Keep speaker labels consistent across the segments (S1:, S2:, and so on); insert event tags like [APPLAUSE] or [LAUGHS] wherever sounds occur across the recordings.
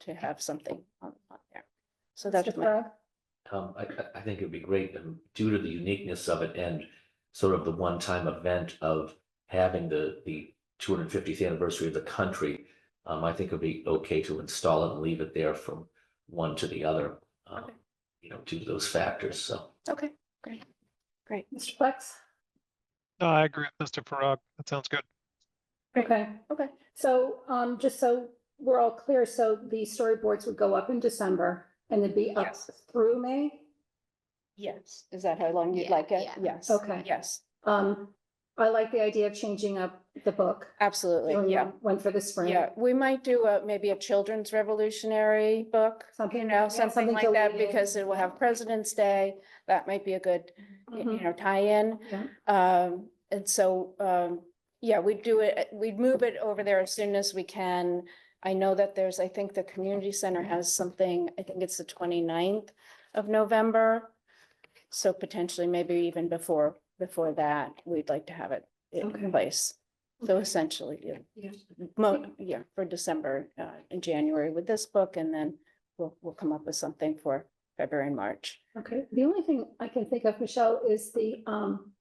S1: to have something on, on there. So
S2: Mr.
S1: that's my,
S2: Farrar?
S3: Um, I, I, I think it'd be great um, due to the uniqueness of it and sort of the one-time event of having the, the two hundred and fiftieth anniversary of the country. Um, I think it'd be okay to install it and leave it there from one to the other. um,
S1: Okay.
S3: You know, due to those factors, so.
S1: okay, great, great.
S2: Mr. Flex?
S4: No, I agree with Mr. Farag. That sounds good.
S1: Great.
S2: Okay,
S1: Okay.
S2: so, um, just so we're all clear, so the storyboards would go up in December and then be up
S1: Yes.
S2: through May?
S1: Yes. Is that how long you'd
S5: Yeah,
S1: like it?
S5: yeah.
S1: Yes.
S2: Okay.
S1: Yes,
S2: Um, I like the idea of changing up the book.
S1: absolutely,
S2: doing
S1: yeah.
S2: One for the spring.
S1: Yeah, we might do a, maybe a children's revolutionary book, you
S2: Something
S1: know,
S2: like that,
S1: something
S2: something
S1: like that,
S2: deleted.
S1: because it will have President's Day. That might be a good, y- you
S2: Mhm.
S1: know, tie-in.
S2: Yeah.
S1: Um, and so, um, yeah, we'd do it, we'd move it over there as soon as we can. I know that there's, I think the community center has something, I think it's the 29th of November. So potentially maybe even before, before that, we'd like to have it
S2: Okay.
S1: in place. So essentially, yeah.
S2: Yeah.
S1: Mo, yeah, for December, uh, and January with this book, and then we'll, we'll come up with something for February and March.
S2: Okay, the only thing I can think of, Michelle, is the, um,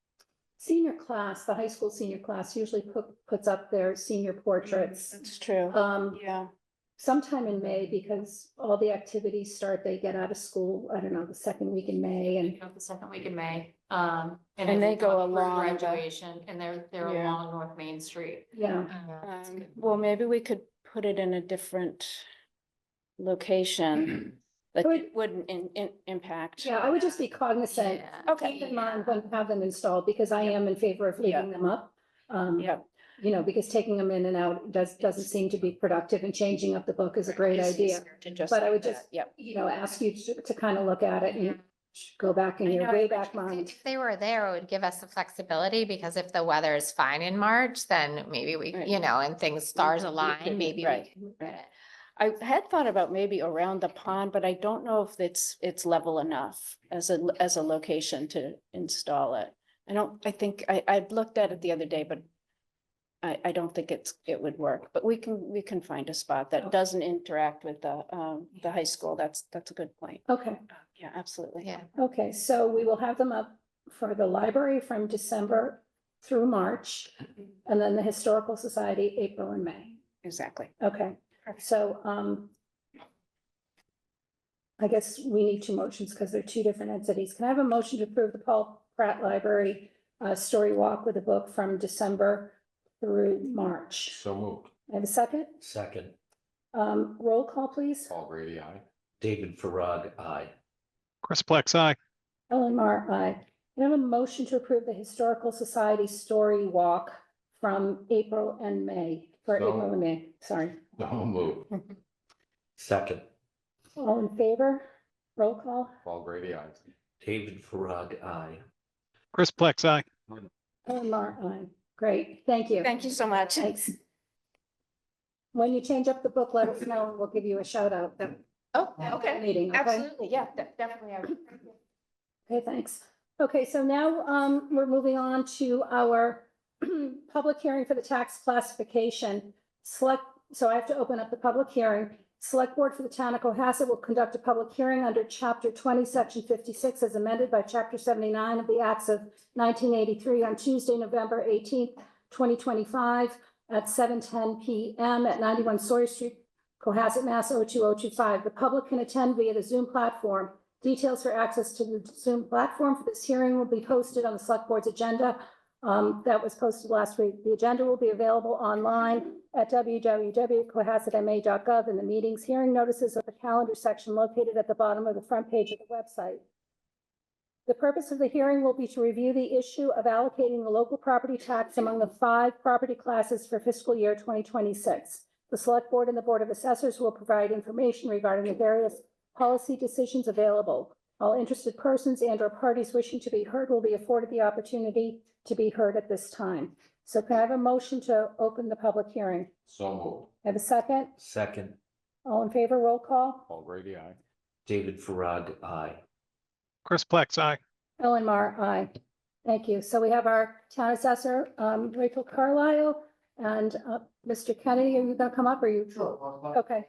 S2: senior class, the high school senior class usually put, puts up their senior portraits.
S1: That's true.
S2: Um,
S1: Yeah,
S2: sometime in May because all the activities start, they get out of school, I don't know, the second week in May and.
S5: you know, the second week in May. Um.
S1: And
S5: then
S1: they go
S5: up through
S1: along the-
S5: Graduation and they're, they're
S1: Yeah.
S5: along North Main Street.
S2: Yeah,
S5: Yeah, it's
S1: um,
S5: good.
S1: well, maybe we could put it in a different location that
S2: Would-
S1: it wouldn't in, in, impact.
S2: yeah, I would just be cognizant.
S5: Yeah.
S1: Okay.
S2: Keep in mind when to have them installed because I am in favor of leaving them up. Um,
S1: Yeah,
S2: you know, because taking them in and out does, doesn't seem to be productive and changing up the book is a great
S1: It's
S2: idea.
S1: easier to just.
S2: But I
S1: do
S2: would
S1: that,
S2: just-
S1: Yep.
S2: You know, ask you to, to kind of look at it
S5: Yeah.
S2: and go back in
S5: I
S2: your
S5: know,
S2: way
S5: but
S2: back
S5: if they-
S2: mind.
S6: If they were there, it would give us the flexibility because if the weather is fine in March, then maybe we,
S1: Right.
S6: you know, and things stars
S1: Mhm.
S6: align, maybe we
S1: Right,
S6: can move it.
S1: I had thought about maybe around the pond, but I don't know if it's, it's level enough as a, as a location to install it. I don't, I think, I, I looked at it the other day, but I, I don't think it's, it would work, but we can, we can find a spot
S2: Okay.
S1: that doesn't interact with the, um, the high school. That's, that's a good point.
S2: Okay,
S1: Uh, Yeah, absolutely.
S6: Yeah.
S2: okay, so we will have them up for the library from December through March. And then the Historical Society, April and May.
S1: Exactly.
S2: Okay,
S1: Perfect.
S2: so, um, I guess we need two motions because they're two different entities. Can I have a motion to approve the Paul Pratt Library uh, Story Walk with a book from December through March?
S7: So moved.
S2: I have a second.
S3: Second,
S2: Um, roll call, please.
S7: Paul Grady, aye. [LAUGHS]
S3: David Farag, aye.
S4: Chris Plex, aye.
S2: Ellen Mar, aye. Can I have a motion to approve the Historical Society Story Walk from April and May, for
S7: So-
S2: April and May, sorry.
S7: So moved.
S3: Second,
S2: All in favor? Roll call.
S7: Paul Grady, aye.
S3: David Farag, aye.
S4: Chris Plex, aye.
S2: Ellen Mar, aye. Great, thank you.
S1: Thank you so much.
S2: Thanks. When you change up the book, let us know, and we'll give you a shout out. at
S1: Oh,
S2: that
S1: okay.
S2: Meeting, okay?
S1: Absolutely. Yeah, de- definitely. I would.
S2: Okay, thanks. Okay, so now, um, we're moving on to our [CLEARS THROAT] public hearing for the tax classification. Select, so I have to open up the public hearing. Select Board for the Town of Cohasset will conduct a public hearing under Chapter twenty, Section fifty-six, as amended by Chapter seventy-nine of the Acts of nineteen eighty-three on Tuesday, November eighteenth, twenty twenty-five, at seven ten PM at ninety-one Sawyer Street, Cohasset, Mass. 02025. The public can attend via the Zoom platform. Details for access to the Zoom platform for this hearing will be posted on the Select Board's agenda. um, that was posted last week. The agenda will be available online at www.cohassetma.gov in the meetings, hearing notices of the calendar section located at the bottom of the front page of the website. The purpose of the hearing will be to review the issue of allocating the local property tax among the five property classes for fiscal year 2026. The Select Board and the Board of Assessors will provide information regarding the various policy decisions available. All interested persons and or parties wishing to be heard will be afforded the opportunity to be heard at this time. So can I have a motion to open the public hearing?
S7: So moved.
S2: I Have a second?
S3: Second,
S2: All in favor, roll call?
S7: Paul Grady, aye.
S3: David Farag, aye.
S4: Chris Plex, aye.
S2: Ellen Mar, aye. Thank you. So we have our town assessor, um, Rachel Carlisle and, uh, Mr. Kennedy, are you gonna come up or you? Okay,